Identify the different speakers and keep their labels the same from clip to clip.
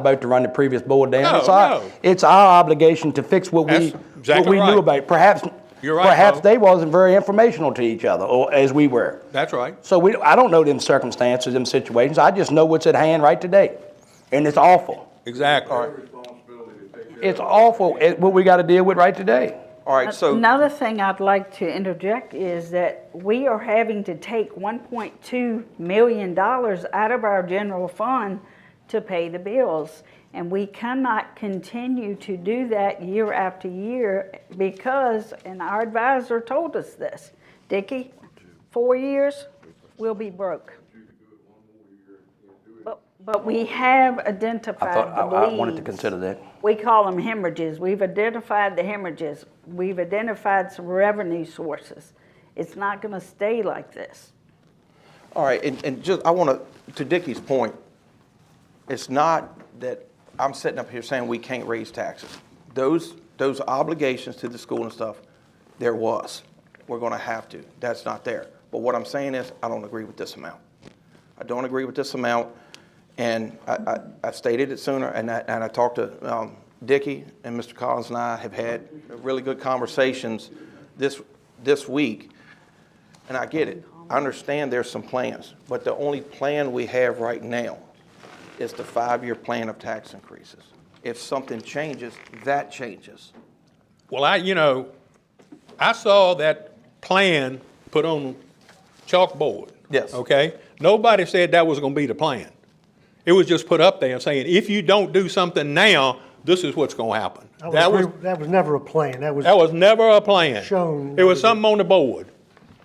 Speaker 1: about to run the previous board down.
Speaker 2: No,
Speaker 1: It's our-
Speaker 2: no.
Speaker 1: It's our obligation to fix what we,
Speaker 2: That's
Speaker 1: what
Speaker 2: exactly
Speaker 1: we
Speaker 2: right.
Speaker 1: knew about. it. Perhaps,
Speaker 2: You're right,
Speaker 1: perhaps
Speaker 2: Bo.
Speaker 1: they wasn't very informational to each other, or as we were.
Speaker 2: That's right.
Speaker 1: So we, I don't know them circumstances, them situations. I just know what's at hand right today. And it's awful.
Speaker 2: Exactly.
Speaker 1: It's awful, eh, what we gotta deal with right today.
Speaker 3: All right, so,
Speaker 4: Another thing I'd like to interject is that we are having to take one point two million dollars out of our general fund to pay the bills. And we cannot continue to do that year after year because, and our advisor told us this, Dickie, four years, we'll be broke. But, but we
Speaker 1: I
Speaker 4: have
Speaker 1: thought,
Speaker 4: identified
Speaker 1: I,
Speaker 4: the
Speaker 1: I wanted to
Speaker 4: leads.
Speaker 1: consider that.
Speaker 4: We call them hemorrhages. We've identified the hemorrhages. We've identified some revenue sources. It's not going to stay like this.
Speaker 3: all right, and, and just, I want to, to Dickie's point, it's not that I'm sitting up here saying we can't raise taxes. Those, those obligations to the school and stuff, there was. We're going to have to. That's not there. But what I'm saying is, I don't agree with this amount. I don't agree with this amount, and I, I, I stated it sooner, and I, and I talked to, um, Dickie and Mr. Collins and I have had really good conversations this, this week. And I get it. I understand there's some plans, but the only plan we have right now is the five-year plan of tax increases. If something changes, that changes.
Speaker 2: Well, I, you know, I saw that plan put on chalkboard.
Speaker 3: Yes.
Speaker 2: Okay? Nobody said that was gonna be the plan. It was just put up there saying, if you don't do something now, this is what's gonna happen.
Speaker 5: I would
Speaker 2: That
Speaker 5: agree-
Speaker 2: was,
Speaker 5: That was never a plan, that was.
Speaker 2: that was never a plan.
Speaker 5: Shown.
Speaker 2: It was something on the board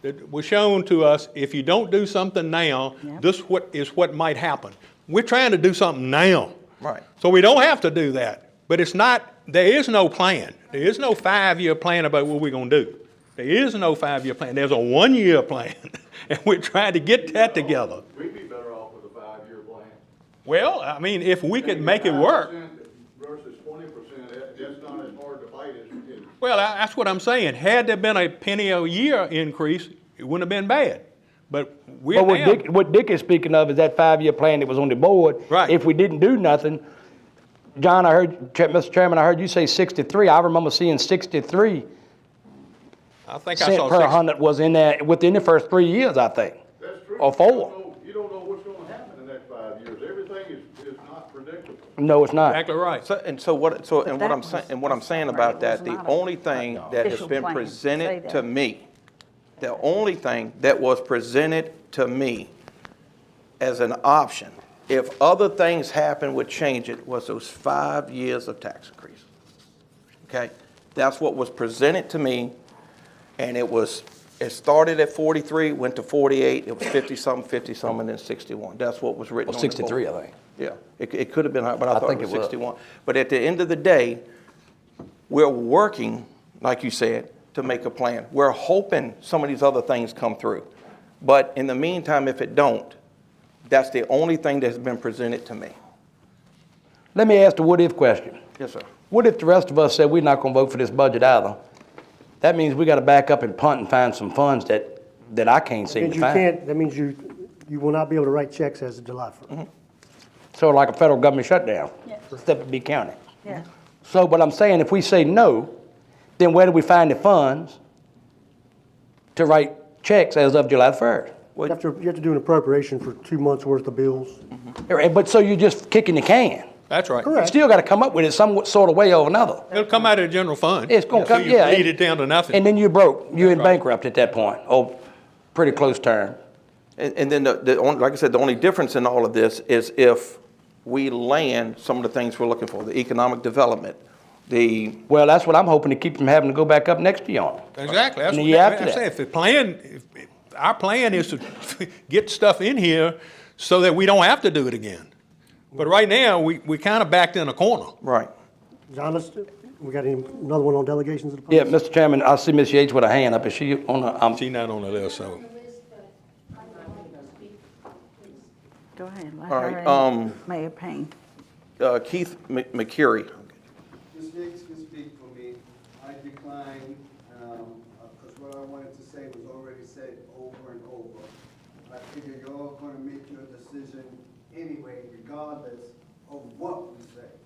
Speaker 2: that was shown to us, if you don't do something now, this what, is what might happen. We're trying to do something now.
Speaker 3: Right.
Speaker 2: So we don't have to do that. But it's not, there is no plan. There is no five-year plan about what we're going to do. There is no five-year plan. There's a one-year plan. And we're trying to get that together.
Speaker 6: We'd be better off with a five-year plan.
Speaker 2: Well, I mean, if we could make it work,
Speaker 6: 5% Versus twenty percent, that, that's not as hard to fight as it is.
Speaker 2: well, I- that's what I'm saying. Had there been a penny a year increase, it wouldn't have been bad. But we're
Speaker 1: But what
Speaker 2: down.
Speaker 1: Dick, what Dick is speaking of is that five-year plan that was on the board.
Speaker 2: Right.
Speaker 1: If we didn't do nothing, John, I heard, Chair- Mr. Chairman, I heard you say sixty-three. I remember seeing sixty-three
Speaker 2: I think I
Speaker 1: cent
Speaker 2: saw
Speaker 1: per
Speaker 2: six.
Speaker 1: hundred was in that, within the first three years, I think.
Speaker 6: That's true.
Speaker 1: Or Oh,
Speaker 6: You
Speaker 1: four.
Speaker 6: don't know- You don't know what's gonna happen in the next five years. Everything is, is not predictable.
Speaker 1: No, it's not.
Speaker 2: Exactly right.
Speaker 3: So, and so what, so, and what I'm
Speaker 4: that
Speaker 3: saying,
Speaker 4: was-
Speaker 3: and what I'm saying
Speaker 4: right,
Speaker 3: about
Speaker 4: it
Speaker 3: that,
Speaker 4: was
Speaker 3: the
Speaker 4: not a
Speaker 3: only thing that has
Speaker 4: official
Speaker 3: been
Speaker 4: plan, say
Speaker 3: presented
Speaker 4: that.
Speaker 3: to me, the only thing that was presented to me as an option, if other things happen would change it, was those five years of tax increase. Okay? That's what was presented to me, and it was, it started at 43, went to 48, it was 50-some, 50-some, and then 61. That's what was written
Speaker 1: Well,
Speaker 3: on the board.
Speaker 1: 63, I think.
Speaker 3: Yeah, it, it could have been higher, but I
Speaker 1: I
Speaker 3: thought it
Speaker 1: think
Speaker 3: was
Speaker 1: it was.
Speaker 3: 61. But at the end of the day, we're working, like you said, to make a plan. We're hoping some of these other things come through. But in the meantime, if it don't, that's the only thing that's been presented to me.
Speaker 1: Let me ask the what-if question.
Speaker 3: Yes, sir.
Speaker 1: What if the rest of us said we're not gonna vote for this budget either? That means we gotta back up and punt and find some funds that, that I can't
Speaker 5: That
Speaker 1: seem
Speaker 5: means
Speaker 1: to
Speaker 5: you
Speaker 1: find.
Speaker 5: can't, that means you, you will not be able to write checks as of July 1st.
Speaker 1: So like a federal government shutdown,
Speaker 4: Yes.
Speaker 1: except it be county.
Speaker 4: Yeah.
Speaker 1: So what I'm saying, if we say no, then where do we find the funds to write checks as of July first?
Speaker 5: You have to, you have to do an appropriation for two months' worth of bills.
Speaker 1: But, so you're just kicking the can.
Speaker 2: That's right.
Speaker 1: You still gotta come up with it some sort of way or another.
Speaker 2: It'll come out of the general fund.
Speaker 1: It's gonna
Speaker 2: So
Speaker 1: come, yeah.
Speaker 2: you bleed it down to nothing.
Speaker 1: And then you're broke, you're in bankrupt at that point, or pretty close term.
Speaker 3: And, and then, the, the, on- like I said, the only difference in all of this is if we land some of the things we're looking for, the economic development, the,
Speaker 1: Well, that's what I'm hoping to keep from having to go back up next year on.
Speaker 2: Exactly. That's
Speaker 1: And the
Speaker 2: what
Speaker 1: year after
Speaker 2: I'm
Speaker 1: that.
Speaker 2: saying. If the plan, if, if our plan is to get stuff in here so that we don't have to do it again. But right now, we, we kind of backed in a corner.
Speaker 3: right.
Speaker 5: John, let's, we got any, another one on delegations of the.
Speaker 1: Yeah, Mr. Chairman, I see Ms. Yates with her hand up. Is she on the, um,
Speaker 2: She not on the list, so.
Speaker 4: Go ahead. let
Speaker 3: All
Speaker 4: her
Speaker 3: right,
Speaker 4: and
Speaker 3: um,
Speaker 4: Mayor Payne.
Speaker 3: Uh, Keith Mc- McCurry,
Speaker 7: Ms. Hicks can speak for me. I declined, because what I wanted to say was already said over and over. I figure you're all going to make your decision anyway, regardless of what we